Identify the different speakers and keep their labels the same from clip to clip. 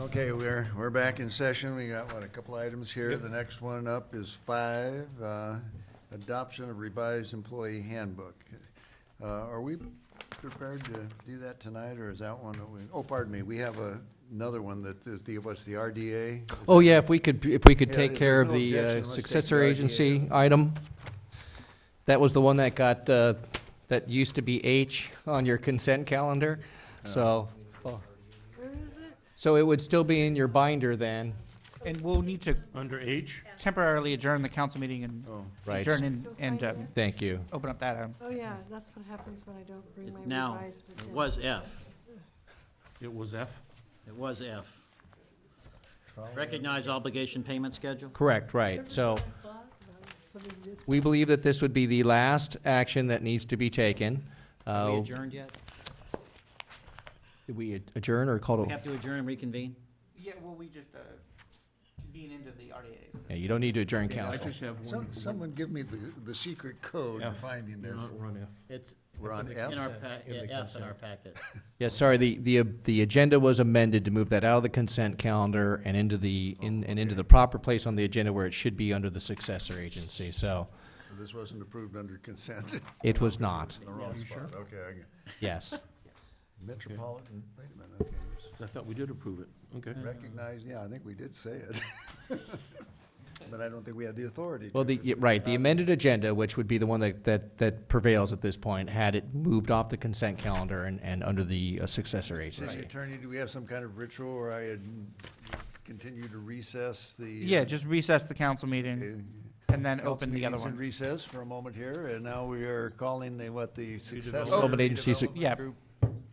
Speaker 1: Okay, we're, we're back in session. We got, what, a couple items here.
Speaker 2: Yep.
Speaker 1: The next one up is five, uh, adoption of revised employee handbook. Uh, Are we prepared to do that tonight, or is that one that we, oh, pardon me, we have a- another one that is the, what's the RDA?
Speaker 3: Oh, yeah, if we could, if we could
Speaker 1: Yeah,
Speaker 3: take
Speaker 1: if
Speaker 3: care
Speaker 1: there's
Speaker 3: of
Speaker 1: no
Speaker 3: the
Speaker 1: objection,
Speaker 3: uh,
Speaker 1: let's take
Speaker 3: successor
Speaker 1: the RDA
Speaker 3: agency item. That was the one that got, uh, that used to be H on your consent calendar,
Speaker 1: Oh.
Speaker 3: so. So it would still be in your binder then,
Speaker 4: And we'll need to
Speaker 2: Under H?
Speaker 4: temporarily adjourn the council meeting and
Speaker 1: Oh,
Speaker 3: right?
Speaker 4: adjourn and, and um,
Speaker 3: Thank you.
Speaker 4: open up that um, item.
Speaker 5: Oh, yeah, that's what happens when I don't bring my
Speaker 6: It's now,
Speaker 5: revised
Speaker 6: it
Speaker 5: agenda.
Speaker 6: was F,
Speaker 2: It was F?
Speaker 6: it was F. Recognize obligation payment schedule?
Speaker 3: Correct, right, so.
Speaker 5: Somebody just-
Speaker 3: We believe that this would be the last action that needs to be taken.
Speaker 6: Have we
Speaker 3: Uh,
Speaker 6: adjourned yet?
Speaker 3: Did we adjourn or call
Speaker 6: We
Speaker 3: to?
Speaker 6: have to adjourn and reconvene?
Speaker 4: Yeah, well, we just, uh, convene into the RDAs.
Speaker 3: Yeah, you don't need to adjourn
Speaker 2: I
Speaker 3: council.
Speaker 2: just have one.
Speaker 1: Some- Someone give me the, the secret code to
Speaker 2: F.
Speaker 1: finding
Speaker 2: Do
Speaker 1: this.
Speaker 2: Not run F.
Speaker 6: It's
Speaker 1: We're on F?
Speaker 6: in our pa,
Speaker 2: In the
Speaker 6: F in our
Speaker 2: consent.
Speaker 6: packet.
Speaker 3: Yeah, sorry, the, the, uh, the agenda was amended to move that out of the consent calendar and into the, in, and into the proper place on the agenda where it should be under the successor agency, so
Speaker 1: This wasn't approved under consent,
Speaker 3: it was not,
Speaker 1: the wrong spot. Okay, I got-
Speaker 3: yes.
Speaker 1: Metropolitan, wait a minute, okay.
Speaker 2: I thought we did approve it. Okay.
Speaker 1: Recognize, yeah, I think we did say it. But I don't think we had the authority. to.
Speaker 3: Well, the, yeah, right, the amended agenda, which would be the one that, that, that prevails at this point, had it moved off the consent calendar and, and under the uh, successor
Speaker 1: City
Speaker 3: agency.
Speaker 1: Attorney, do we have some kind of ritual where I had continue to recess the?
Speaker 4: Yeah, just recess the council
Speaker 1: uh,
Speaker 4: meeting and then
Speaker 1: council
Speaker 4: open the other
Speaker 1: meetings in
Speaker 4: one.
Speaker 1: recess for a moment here, and now we are calling the, what, the successor.
Speaker 3: Development Oh, Agency Sec-
Speaker 1: redevelopment
Speaker 4: Yeah.
Speaker 1: group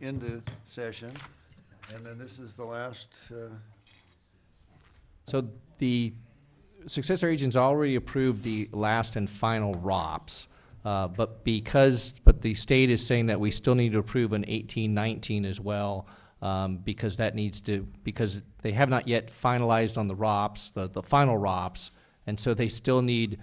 Speaker 1: Into session, and then this is the last, uh,
Speaker 3: So the successor agents already approved the last and final ROPS. Uh, but because, but the state is saying that we still need to approve an eighteen nineteen as well, um, because that needs to, because they have not yet finalized on the ROPS, the, the final ROPS. And so they still need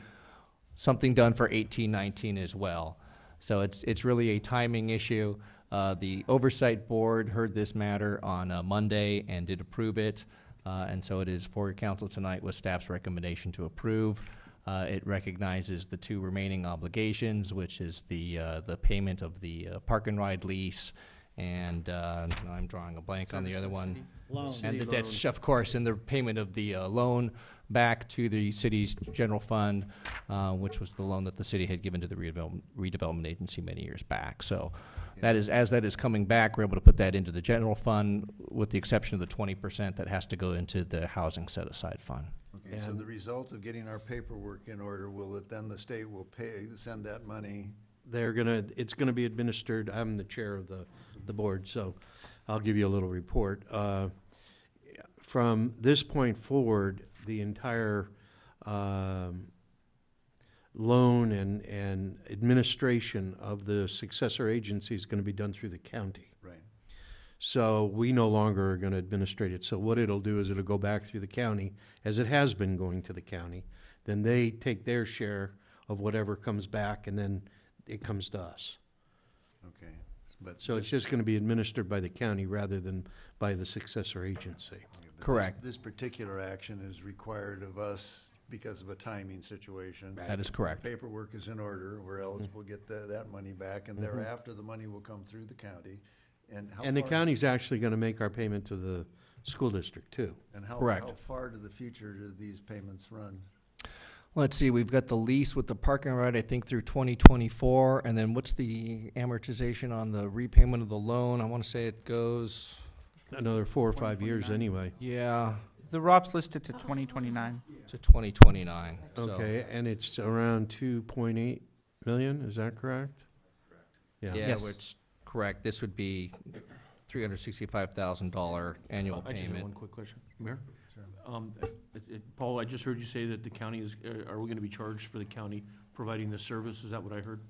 Speaker 3: something done for eighteen nineteen as well. So it's, it's really a timing issue. Uh, the oversight board heard this matter on uh, Monday and did approve it. Uh, and so it is for your council tonight with staff's recommendation to approve. Uh, it recognizes the two remaining obligations, which is the, uh, the payment of the uh, park and ride lease and, uh, now I'm drawing a blank on the other one.
Speaker 6: Loan.
Speaker 3: And the debts, of course, and the payment of the uh, loan back to the city's general fund, uh, which was the loan that the city had given to the redevelopment, redevelopment agency many years back. So that is, as that is coming back, we're able to put that into the general fund, with the exception of the twenty percent that has to go into the housing set-aside fund.
Speaker 1: okay, so the result of getting our paperwork in order, will it, then the state will pay, send that money?
Speaker 7: They're gonna, it's gonna be administered, I'm the chair of the, the board, so I'll give you a little report. Uh, From this point forward, the entire um, loan and, and administration of the successor agency is gonna be done through the county.
Speaker 1: Right.
Speaker 7: So we no longer are going to administrate it. So what it'll do is it'll go back through the county, as it has been going to the county. Then they take their share of whatever comes back, and then it comes to us.
Speaker 1: Okay, but.
Speaker 7: So it's
Speaker 1: this-
Speaker 7: just going to be administered by the county rather than by the successor agency.
Speaker 1: But this-
Speaker 3: Correct.
Speaker 1: This particular action is required of us because of a timing situation.
Speaker 3: That is correct.
Speaker 1: Paperwork is in order, we're eligible, to get that, that money back, and thereafter, the money will come through the county. And how
Speaker 7: And the
Speaker 1: far-
Speaker 7: county's actually going to make our payment to the school district, too.
Speaker 1: And how,
Speaker 3: Correct.
Speaker 1: how far to the future do these payments run?
Speaker 3: Let's see, we've got the lease with the parking lot, I think, through twenty twenty-four, and then what's the amortization on the repayment of the loan? I wanna say it goes,
Speaker 7: Another four or five years, anyway.
Speaker 3: yeah,
Speaker 4: The ROPS listed to twenty twenty-nine.
Speaker 3: to twenty twenty-nine,
Speaker 7: Okay, and it's around 2.8 million, is that correct?
Speaker 3: Yeah,
Speaker 4: Yes.
Speaker 3: which, correct, this would be three hundred sixty-five thousand dollar annual
Speaker 2: I just have one
Speaker 3: payment.
Speaker 2: quick question. Mayor? Um, it- it- uh, Paul, I just heard you say that the county is, are- are we gonna be charged for the county providing the service? Is that what I heard?